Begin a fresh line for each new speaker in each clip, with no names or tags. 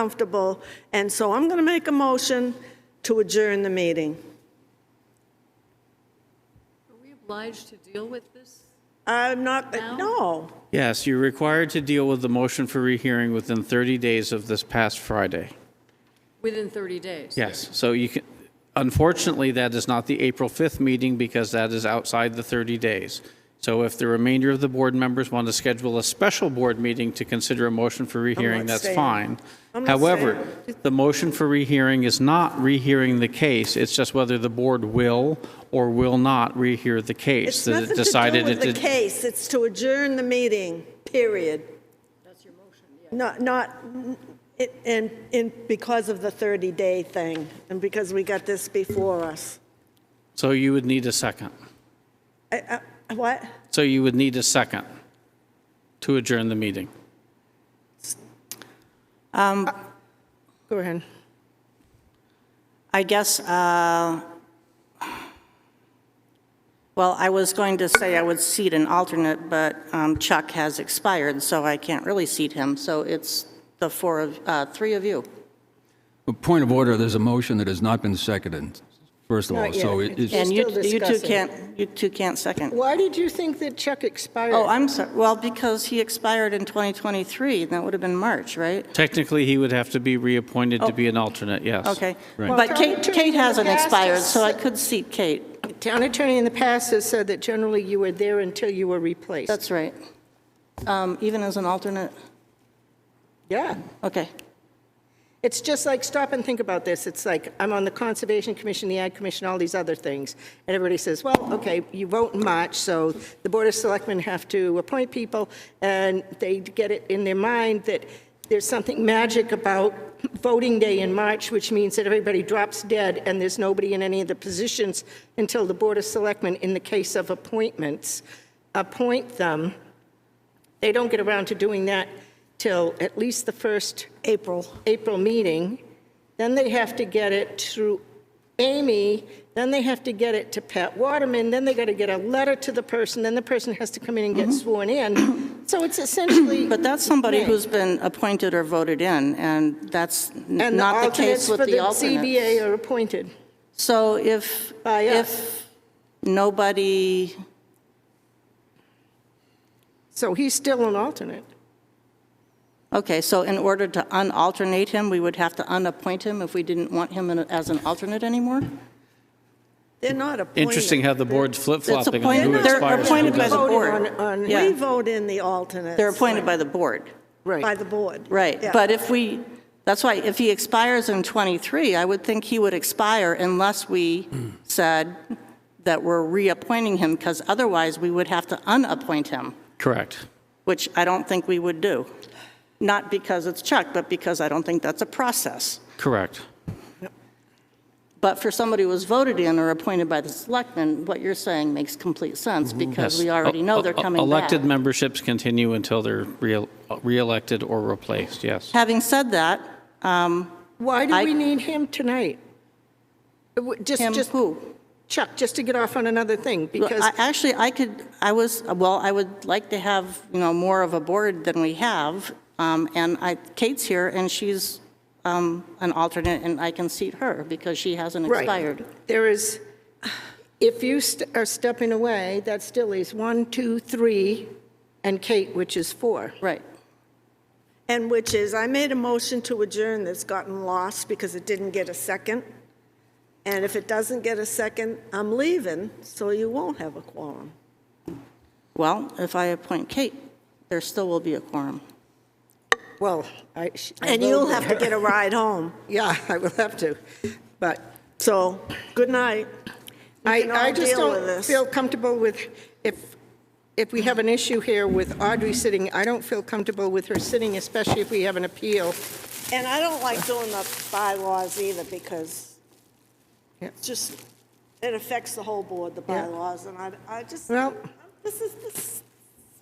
uncomfortable, and so I'm going to make a motion to adjourn the meeting.
Are we obliged to deal with this?
I'm not, no.
Yes, you're required to deal with the motion for rehearing within 30 days of this past Friday.
Within 30 days?
Yes, so you can, unfortunately, that is not the April 5th meeting because that is outside the 30 days. So if the remainder of the board members want to schedule a special board meeting to consider a motion for rehearing, that's
staying.
fine.
I'm not
However, the motion for rehearing is not rehearing the case, it's just whether the board will or will not rehear the case
It's
that
nothing
it
to do
decided
with
it
the
did.
case, it's to adjourn the meeting, period. Not, not, it- and, and because of the 30-day thing, and because we got this before us.
So you would need a second.
I- I- What?
So you would need a second to adjourn the meeting.
Go ahead.
I guess, uh, well, I was going to say I would seat an alternate, but um, Chuck has expired, so I can't really seat him. So it's the four of, uh, three of you.
A Point of order, there's a motion that has not been seconded, first of all,
Not yet.
so it- it's,
And you
still
you two
discussing.
can't, you two can't second.
Why did you think that Chuck expired?
Oh, I'm sorry, well, because he expired in 2023, and that would have been March, right?
Technically, he would have to be reappointed to be an alternate, yes.
Oh. Okay.
Right.
But Kate,
Well,
Kate hasn't
Kate has to
expired, so I
sit-
could seat Kate.
Town attorney in the past has said that generally you were there until you were replaced.
That's right. Um, Even as an alternate?
Yeah.
Okay.
It's just like, stop and think about this. It's like, I'm on the Conservation Commission, the Ag Commission, all these other things. And everybody says, well, okay, you vote in March, so the Board of Selectmen have to appoint people, and they get it in their mind that there's something magic about voting day in March, which means that everybody drops dead, and there's nobody in any of the positions until the Board of Selectmen, in the case of appointments, appoint them. They don't get around to doing that till at least the first
April.
April meeting, then they have to get it through Amy, then they have to get it to Pat Waterman, then they got to get a letter to the person, then the person has to come in and get sworn in. So it's essentially.
But that's somebody
May.
who's been appointed or voted in, and that's n-
And
not the
alternates
case with
for
the
ZBA
alternate.
are appointed.
So if,
By us.
if nobody,
So he's still an alternate.
okay, so in order to unalternate him, we would have to unappoint him if we didn't want him in a- as an alternate anymore?
They're not appointed.
Interesting how the board's flip-flopping on
appoint-
who
they're
expires. and who
appointed by the
doesn't.
Voted
board.
on- on-
Yeah.
We vote in the alternates.
They're appointed by the board.
By the board.
Right,
Yeah.
but if we, that's why, if he expires in '23, I would think he would expire unless we said that we're reappointing him, because otherwise we would have to unappoint him,
Correct.
which I don't think we would do. Not because it's Chuck, but because I don't think that's a process.
Correct.
But for somebody who was voted in or appointed by the selectmen, what you're saying makes complete sense, because
Mm-hmm. Yes.
we already know they're
E- e-
coming back.
Elected memberships continue until they're re- re-elected or replaced, yes.
Having said that, um,
Why do
I-
we need him tonight? Uh, w- Just,
him
just,
who?
Chuck, just to get off on another thing, because.
I- Actually, I could, I was, well, I would like to have, you know, more of a board than we have, um, and I, Kate's here, and she's um, an alternate, and I can seat her, because she hasn't
Right.
expired.
There is, if you st- are stepping away, that still is one, two, three, and Kate, which is four.
Right.
And which is, I made a motion to adjourn that's gotten lost because it didn't get a second. And if it doesn't get a second, I'm leaving, so you won't have a quorum.
Well, if I appoint Kate, there still will be a quorum.
Well, I. sh- I
And
will
you'll
be-
have to get a ride home.
Yeah, I will have to. But
So, good night.
I,
can all
I just
deal with
don't
this.
feel comfortable with, if, if we have an issue here with Audrey sitting, I don't feel comfortable with her sitting, especially if we have an appeal.
And I don't like doing the bylaws either because
Yeah.
it's just, it affects the whole board, the
Yeah.
bylaws, and I, I just,
Well-
this is, this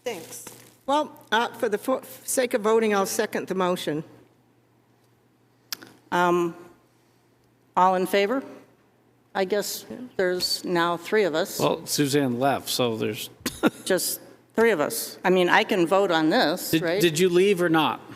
stinks.
Well, uh, for the fo- sake of voting, I'll second the motion.
All in favor? I guess there's now three of us,
Well, Suzanne left, so there's,
just three of us. I mean, I can vote on this,
did
right?
did you leave or not?